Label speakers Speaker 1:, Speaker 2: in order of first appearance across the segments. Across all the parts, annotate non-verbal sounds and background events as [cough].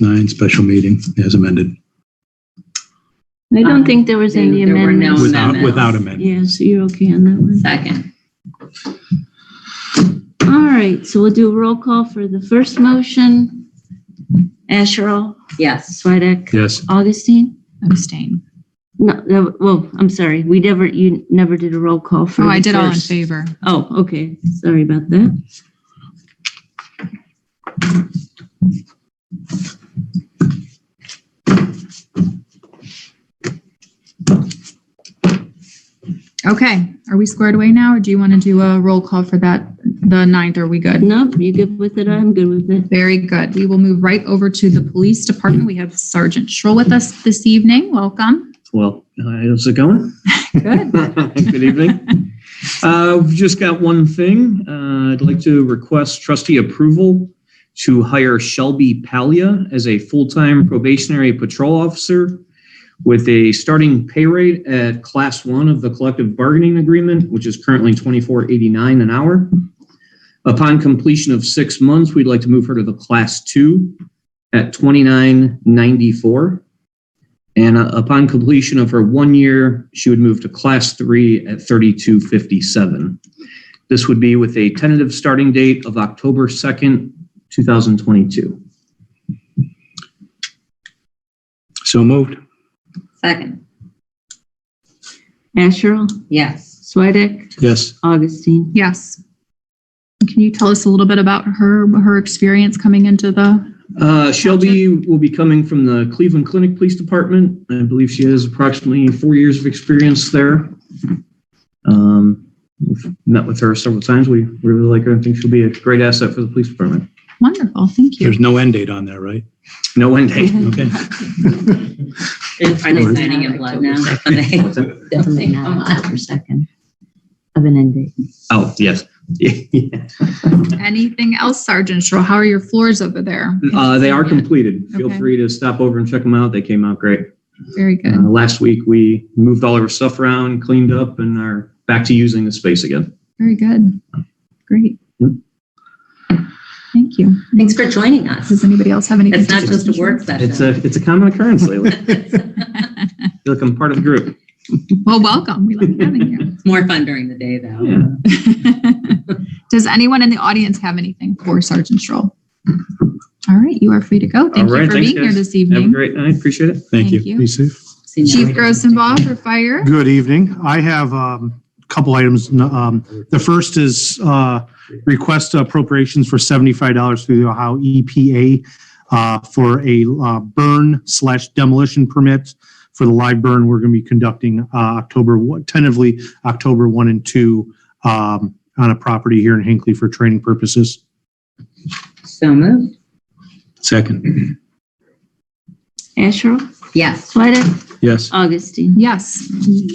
Speaker 1: nine, special meeting as amended.
Speaker 2: I don't think there was any
Speaker 3: Um, There were no
Speaker 2: amendments.
Speaker 1: Without,
Speaker 3: amendments.
Speaker 1: without amendment.
Speaker 2: Yes, you're okay on that one.
Speaker 3: Second.
Speaker 2: All right, so we'll do a roll call for the first motion. Asherle,
Speaker 3: Yes.
Speaker 2: Swedek,
Speaker 1: Yes,
Speaker 2: Augustine?
Speaker 4: Abstain.
Speaker 2: No, no, well, I'm sorry, we never, you never did a roll call for.
Speaker 4: Oh, I
Speaker 2: the
Speaker 4: did all in
Speaker 2: first.
Speaker 4: favor.
Speaker 2: Oh, okay, sorry about that.
Speaker 4: Okay, are we squared away now, or do you want to do a roll call for that, the ninth? Are we good?
Speaker 2: Nope, you good with it? I'm good with it.
Speaker 4: Very good. We will move right over to the police department. We have Sergeant Schrull with us this evening. Welcome.
Speaker 5: Well, uh, how's it going?
Speaker 4: Good.
Speaker 5: Good evening. Uh, We've just got one thing. Uh, I'd like to request trustee approval to hire Shelby Palia as a full-time probationary patrol officer with a starting pay rate at class one of the collective bargaining agreement, which is currently twenty-four eighty-nine an hour. Upon completion of six months, we'd like to move her to the class two at twenty-nine ninety-four. And uh, upon completion of her one year, she would move to class three at 3257. This would be with a tentative starting date of October 2nd, 2022.
Speaker 1: so moved.
Speaker 3: Second.
Speaker 2: Asherle,
Speaker 3: Yes.
Speaker 2: Swedek,
Speaker 1: Yes,
Speaker 2: Augustine.
Speaker 4: Yes. Can you tell us a little bit about her, her experience coming into the,
Speaker 5: Uh, Shelby will be coming from the Cleveland Clinic Police Department. I believe she has approximately four years of experience there. Um, We've met with her several times. We really like her and think she'll be a great asset for the police department.
Speaker 4: wonderful, thank you.
Speaker 1: there's no end date on that, right?
Speaker 5: No end
Speaker 1: [laughs]
Speaker 5: date.
Speaker 1: Okay.
Speaker 3: It's
Speaker 1: Are they
Speaker 3: signing in blood now. [laughs] Definitely not October second of an end date.
Speaker 5: Oh, yes. [laughs]
Speaker 4: Anything else, Sergeant Schrull? How are your floors over there?
Speaker 5: Uh, they are completed. Feel
Speaker 4: Okay.
Speaker 5: free to stop over and check them out. They came out great.
Speaker 4: Very good.
Speaker 5: Uh, last week, we moved all of our stuff around, cleaned up, and are back to using the space again.
Speaker 4: Very good. Great.
Speaker 5: Yep.
Speaker 4: Thank you.
Speaker 3: Thanks for joining us.
Speaker 4: Does anybody else have any?
Speaker 3: It's not just a work
Speaker 5: It's
Speaker 3: session.
Speaker 5: a it's a common occurrence lately. I feel like I'm part of the group.
Speaker 4: Well, welcome. We like having
Speaker 3: It's More fun during the day though.
Speaker 5: Yeah.
Speaker 4: you. Does anyone in the audience have anything for Sergeant Stroll? All right, you are free to go. Thank
Speaker 5: All
Speaker 4: you
Speaker 5: right,
Speaker 4: for
Speaker 5: thanks,
Speaker 4: being here
Speaker 5: guys.
Speaker 4: this
Speaker 5: Have a
Speaker 4: evening.
Speaker 5: great night. Appreciate it.
Speaker 1: Thank you.
Speaker 4: Thank you.
Speaker 1: Be safe.
Speaker 3: See you
Speaker 4: Chief
Speaker 3: later.
Speaker 4: Grossenbaugh for fire.
Speaker 6: Good evening. I have um, a couple items. Um, The first is uh, request appropriations for $75 through the Ohio EPA uh, for a uh, burn slash demolition permit for the live burn we're going to be conducting uh, October, one- tentatively October 1 and 2 um, on a property here in Hinckley for training purposes.
Speaker 3: So moved.
Speaker 1: Second,
Speaker 2: Asherle,
Speaker 3: Yes.
Speaker 2: Swedek,
Speaker 1: yes,
Speaker 2: Augustine.
Speaker 4: Yes,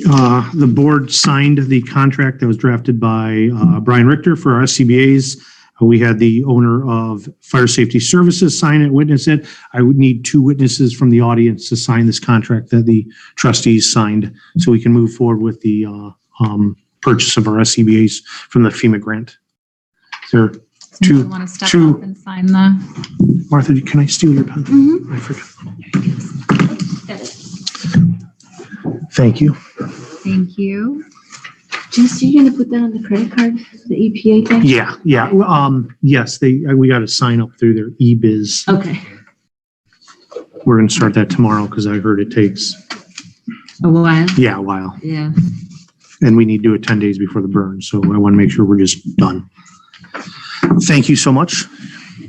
Speaker 6: Uh, The board signed the contract that was drafted by uh, Brian Richter for our SCBA's. Uh, We had the owner of Fire Safety Services sign it, witness it. I would need two witnesses from the audience to sign this contract that the trustees signed so we can move forward with the uh, um, purchase of our SCBA's from the FEMA grant. Is there- Two-
Speaker 4: someone want to step
Speaker 6: two-
Speaker 4: up and sign the,
Speaker 6: Martha, can I steal your pen?
Speaker 2: Mhm.
Speaker 6: I forgot. Thank you.
Speaker 4: thank you.
Speaker 2: Jess, are you gonna put that on the credit card, the E EPA thing?
Speaker 6: Yeah, yeah. Well, um, Yes, they, we got to sign up through their eBiz.
Speaker 2: Okay.
Speaker 6: We're gonna start that tomorrow because I heard it takes,
Speaker 2: A while.
Speaker 6: yeah, a while.
Speaker 2: Yeah.
Speaker 6: And we need to do it ten days before the burn, so I want to make sure we're just done. Thank you so much.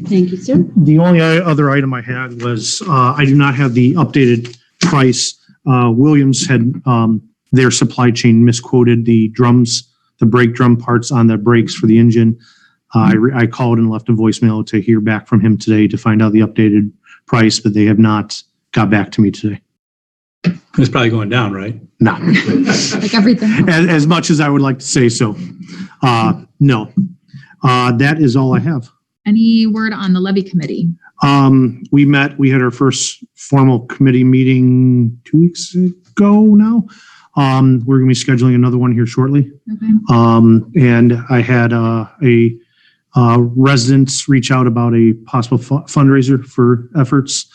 Speaker 2: Thank you, sir.
Speaker 6: The only o- other item I had was, uh, I do not have the updated price. Uh, Williams had, um, their supply chain misquoted the drums, the brake drum parts on the brakes for the engine. Uh, I, re- I called and left a voicemail to hear back from him today to find out the updated price, but they have not got back to me today.
Speaker 1: it's probably going down, right?
Speaker 6: Not.
Speaker 4: Like everything.
Speaker 5: [laughs]
Speaker 6: as, as much as I would like to say so. Uh, no, uh, that is all I have.
Speaker 4: Any word on the levy committee?
Speaker 6: Um, we met, we had our first formal committee meeting two weeks ago now. Um, we're gonna be scheduling another one here shortly.
Speaker 4: Okay.
Speaker 6: Um, and I had, uh, a, uh, residents reach out about a possible fu- fundraiser for efforts.